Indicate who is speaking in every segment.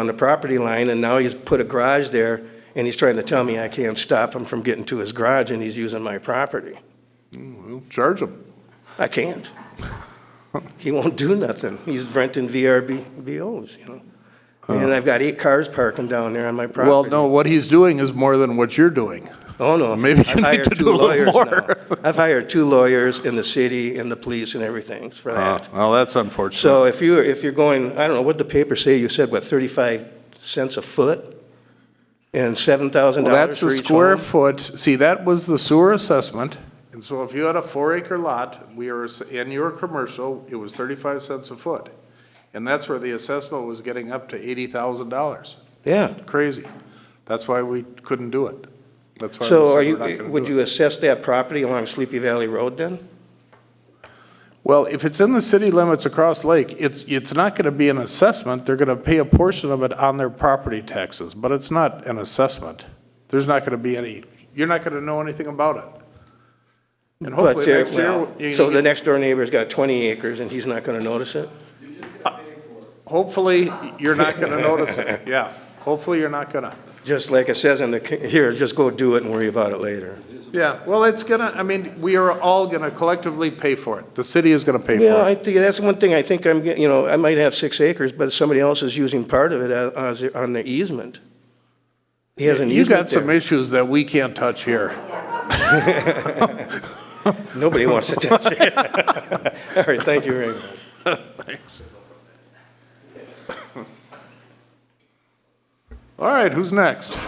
Speaker 1: on the property line, and now he's put a garage there, and he's trying to tell me I can't stop him from getting to his garage, and he's using my property.
Speaker 2: We'll Charge them.
Speaker 1: I can't. He won't do nothing. He's renting VRBOs, you know? And I've got eight cars parking down there on my property.
Speaker 2: Well, no, what he's doing is more than what you're doing.
Speaker 1: Oh, no.
Speaker 2: Maybe you
Speaker 1: I've
Speaker 2: need
Speaker 1: hired
Speaker 2: to
Speaker 1: two
Speaker 2: do a little
Speaker 1: lawyers
Speaker 2: more.
Speaker 1: now. I've hired two lawyers in the city and the police and everything for
Speaker 2: Uh,
Speaker 1: that.
Speaker 2: Well, that's unfortunate.
Speaker 1: So if you, if you're going, I don't know, what the paper say, you said, what, 35 cents a foot? And $7,000 for each
Speaker 2: Well, that's the square
Speaker 1: home?
Speaker 2: foot, see, that was the sewer assessment. And so if you had a four acre lot, we are, s- in your commercial, it was thirty-five cents a foot. And that's where the assessment was getting up to eighty thousand dollars.
Speaker 1: Yeah.
Speaker 2: Crazy. That's why we couldn't do it. That's why we
Speaker 1: So are
Speaker 2: said we're
Speaker 1: you,
Speaker 2: not gonna
Speaker 1: would
Speaker 2: do it.
Speaker 1: you assess that property along Sleepy Valley Road then?
Speaker 2: Well, if it's in the city limits across Lake, it's, it's not gonna be an assessment. They're gonna pay a portion of it on their property taxes, but it's not an assessment. There's not gonna be any, you're not gonna know anything about it. And
Speaker 1: But
Speaker 2: hopefully
Speaker 1: they're-
Speaker 2: next year,
Speaker 1: well,
Speaker 2: you-
Speaker 1: So the next door neighbor's got 20 acres and he's not going to notice it?
Speaker 2: hopefully, you're not gonna notice it, yeah. Hopefully, you're not gonna.
Speaker 1: Just like it says in the, c- here, just go do it and worry about it later.
Speaker 2: Yeah, well, it's gonna, I mean, we are all gonna collectively pay for it. The city is gonna pay
Speaker 1: Yeah,
Speaker 2: for
Speaker 1: I
Speaker 2: it.
Speaker 1: think, that's one thing I think I'm, get- you know, I might have six acres, but somebody else is using part of it as, as- on the easement. He has an
Speaker 2: You got
Speaker 1: easement
Speaker 2: some
Speaker 1: there.
Speaker 2: issues that we can't touch here.
Speaker 1: Nobody wants to touch it. All right, thank you very much.
Speaker 2: All right, who's next?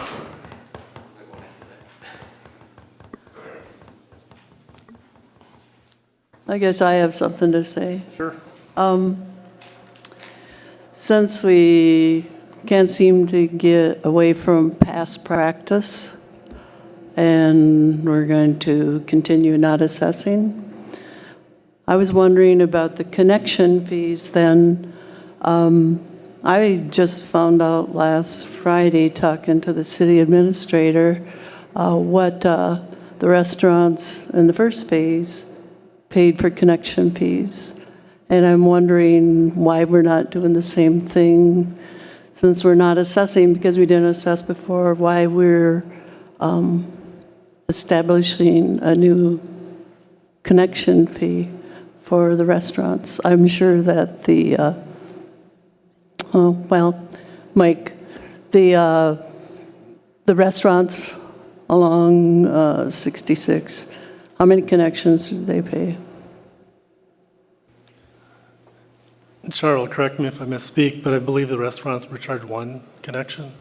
Speaker 3: I guess I have something to say. Um,
Speaker 2: Sure.
Speaker 3: Since we can't seem to get away from past practice, and we're going to continue not assessing, I was wondering about the connection fees then. I just found out last Friday, talking to the city administrator, uh, what uh, the restaurants in the first phase paid for connection fees. And I'm wondering why we're not doing the same thing, since we're not assessing, because we didn't assess before, why we're um, establishing a new connection fee for the restaurants. I'm sure that the uh, Oh, well, Mike, the, uh, the restaurants along uh, 66, how many connections do they pay?
Speaker 4: Charles, correct me if I misspeak, but I believe the restaurants were charged one connection.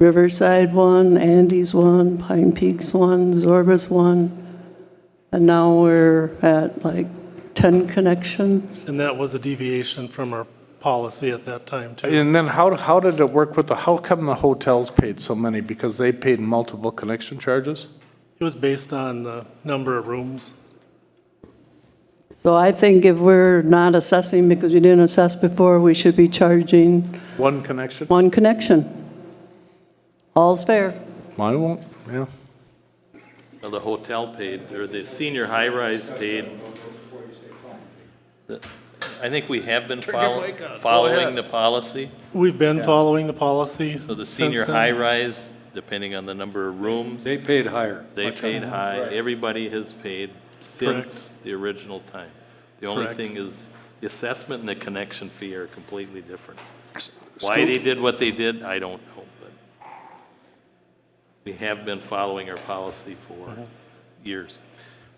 Speaker 3: Riverside one, Andy's one, Pine Peaks one, Zorba's one, and now we're at like 10 connections.
Speaker 4: And that was a deviation from our policy at that time, too.
Speaker 2: And then how, how did it work with the, how come the hotels paid so many? Because they paid multiple connection charges?
Speaker 4: It was based on the number of rooms.
Speaker 3: So I think if we're not assessing because we didn't assess before, we should be charging
Speaker 2: One connection?
Speaker 3: one connection. All's fair.
Speaker 2: I won't, yeah.
Speaker 5: Well, The hotel paid, or the senior high-rise paid. The- I think we have been follow- following the policy.
Speaker 4: We've been following the policy.
Speaker 5: So the
Speaker 4: since
Speaker 5: senior
Speaker 4: then.
Speaker 5: high-rise, depending on the number of rooms,
Speaker 6: They paid higher.
Speaker 5: they paid high. Everybody has paid since
Speaker 4: Correct.
Speaker 5: the original time. The only
Speaker 4: Correct.
Speaker 5: thing is, the assessment and the connection fee are completely different. Why they did what they did, I don't know, but we have been following our policy for
Speaker 4: Uh-huh.
Speaker 5: years.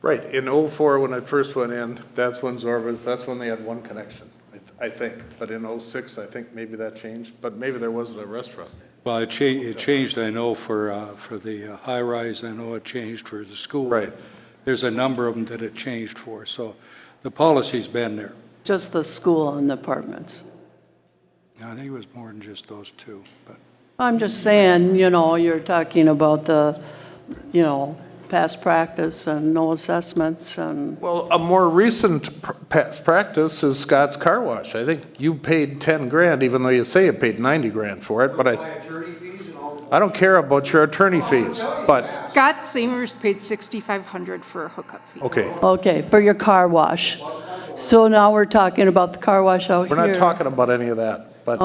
Speaker 2: Right, in '04, when I first went in, that's when Zorba's, that's when they had one connection, I th- I think. But in '06, I think maybe that changed, but maybe there wasn't a restaurant.
Speaker 6: Well, it changed, it changed, I know, for, uh, for the uh, high-rise, I know it changed for the school.
Speaker 2: Right.
Speaker 6: There's a number of them that it changed for, so the policy's been there.
Speaker 3: Just the school and the apartments.
Speaker 6: I think it was more than just those two, but
Speaker 3: I'm just saying, you know, you're talking about the, you know, past practice and no assessments and,
Speaker 2: Well, a more recent pr- past practice is Scott's Car Wash. I think you paid 10 grand, even though you say you paid 90 grand for it, but I, I don't care about your attorney fees, but,
Speaker 7: Scott Seymour's paid 6,500 for a hookup fee.
Speaker 2: okay.
Speaker 3: okay, for your car wash. So now we're talking about the car wash out
Speaker 2: We're
Speaker 3: here.
Speaker 2: not talking about any of that.